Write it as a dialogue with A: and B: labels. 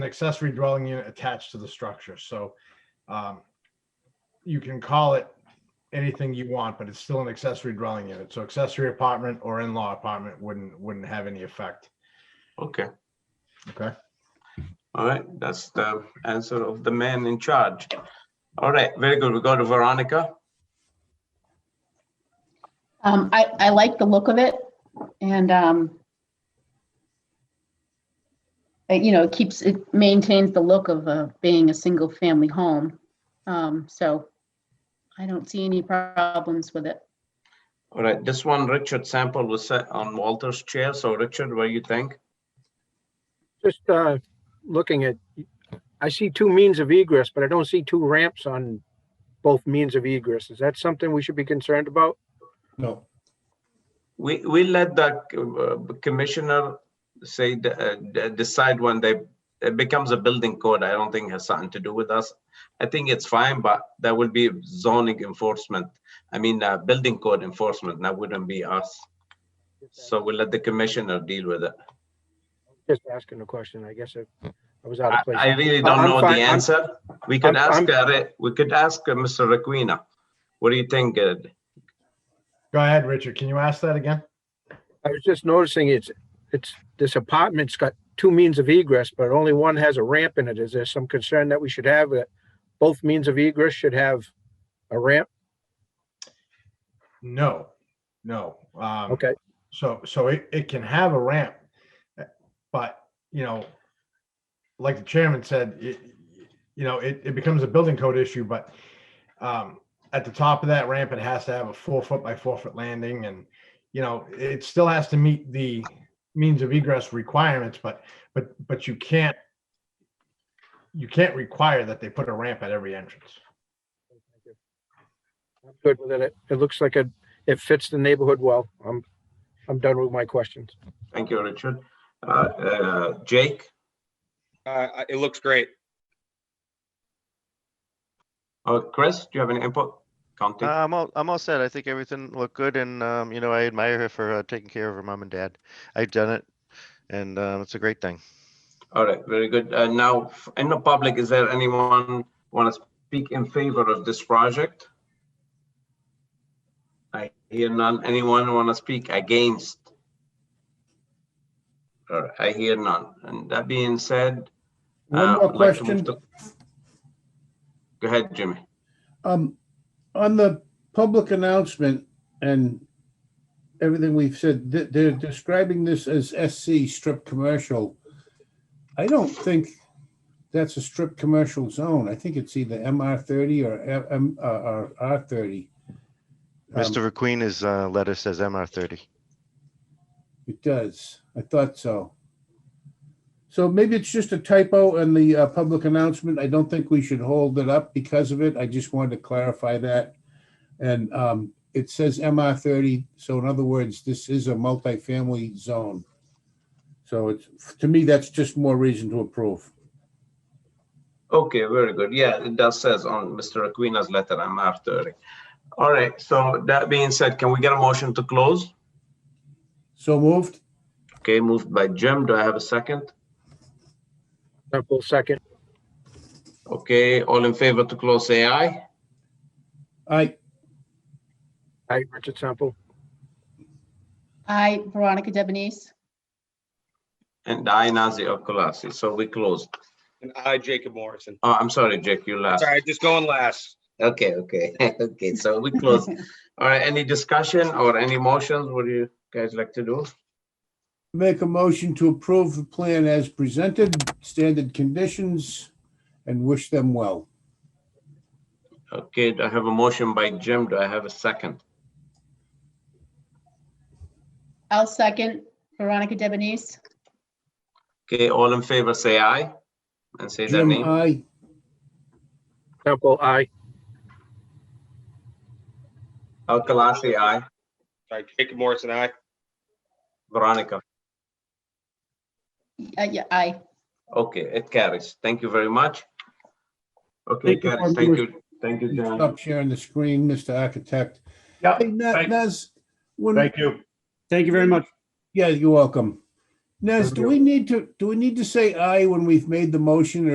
A: an accessory dwelling unit attached to the structure, so um, you can call it anything you want, but it's still an accessory dwelling unit. So accessory apartment or in-law apartment wouldn't, wouldn't have any effect.
B: Okay.
A: Okay.
B: All right, that's the answer of the man in charge. All right, very good. We go to Veronica.
C: Um, I, I like the look of it and, um, it, you know, it keeps, it maintains the look of, uh, being a single family home. Um, so I don't see any problems with it.
B: All right, this one, Richard Sample was set on Walter's chair. So Richard, what do you think?
D: Just uh, looking at, I see two means of egress, but I don't see two ramps on both means of egress. Is that something we should be concerned about?
E: No,
B: We, we let the uh, commissioner say, the- uh, de- decide when they, it becomes a building code. I don't think has something to do with us. I think it's fine, but that will be zoning enforcement. I mean, uh, building code enforcement, that wouldn't be us. So we'll let the commissioner deal with it.
D: Just asking a question. I guess I I was out
B: I
D: of
B: I
D: place.
B: really
D: I-
B: don't
D: I'm
B: know the
D: fine, I'm-
B: answer. We could
D: I'm-
B: ask,
D: I'm-
B: uh, Re- we could ask uh, Mr. Requena. What do you think? uh,
A: Go ahead, Richard. Can you ask that again?
D: I was just noticing it's, it's, this apartment's got two means of egress, but only one has a ramp in it. Is there some concern that we should have that both means of egress should have a ramp?
A: No, no. Um,
D: Okay,
A: So, so it, it can have a ramp, eh, but, you know, like the chairman said, it, you know, it, it becomes a building code issue, but, um, at the top of that ramp, it has to have a four foot by four foot landing and, you know, it still has to meet the means of egress requirements, but, but, but you can't, you can't require that they put a ramp at every entrance.
D: I'm good with it. It looks like it, it fits the neighborhood well. I'm, I'm done with my questions.
B: Thank you, Richard. Uh, uh, Jake?
F: Uh, I- it looks great.
B: Uh, Chris, do you have any input?
G: Uh,
B: Counting?
G: I'm all, I'm all set. I think everything looked good and, um, you know, I admire her for uh, taking care of her mom and dad. I've done it and, uh, it's a great thing.
B: All right, very good. Uh, Now, f- in the public, is there anyone want to speak in favor of this project? I hear none. Anyone want to speak against? All right, I hear none. And that being said.
E: One
B: uh,
E: more
B: I'd like to move
E: question.
B: to- Go ahead, Jimmy.
E: um, on the public announcement and everything we've said, th- they're describing this as SC strip commercial. I don't think that's a strip commercial zone. I think it's either MR thirty or M, uh, or R thirty. Um
G: Mr. Requeen is, uh, letter says MR thirty.
E: It does. I thought so. So maybe it's just a typo in the uh, public announcement. I don't think we should hold it up because of it. I just wanted to clarify that. And um, it says MR thirty, so in other words, this is a multifamily zone. So it's, to me, that's just more reason to approve.
B: Okay, very good. Yeah, it does says on Mr. Aquino's letter, I'm after. All right, so that being said, can we get a motion to close?
E: So moved?
B: Okay, moved by Jim. Do I have a second?
D: Temple second.
B: Okay, all in favor to close, say aye.
E: I,
D: Hi, Richard Sample.
C: I, Veronica Debonese.
B: And aye, Nazir Okulasi. So we closed.
F: And I, Jacob Morrison.
B: Oh, I'm sorry, Jake, you last.
F: Sorry, just going last.
B: Okay, okay, okay, so we closed. All right, any discussion or any motions? What do you guys like to do?
E: Make a motion to approve the plan as presented, standard conditions, and wish them well.
B: Okay, I have a motion by Jim. Do I have a second?
C: I'll second Veronica Debonese.
B: Okay, all in favor, say aye. And say their
E: Jim,
B: name.
E: I,
D: Temple, I.
B: Alkalasi, aye.
F: Sorry, Jacob Morrison, I.
B: Veronica.
C: Uh, yeah, I,
B: Okay, it carries. Thank you very much. Okay,
E: Thank you,
B: carries. Thank you. Thank you, John.
E: stop sharing the screen, Mr. Architect.
H: Yeah,
E: Hey, Na-
H: thank-
E: Naz, when,
H: thank you. Thank you very much.
E: yeah, you're welcome. Nez, do we need to, do we need to say aye when we've made the motion or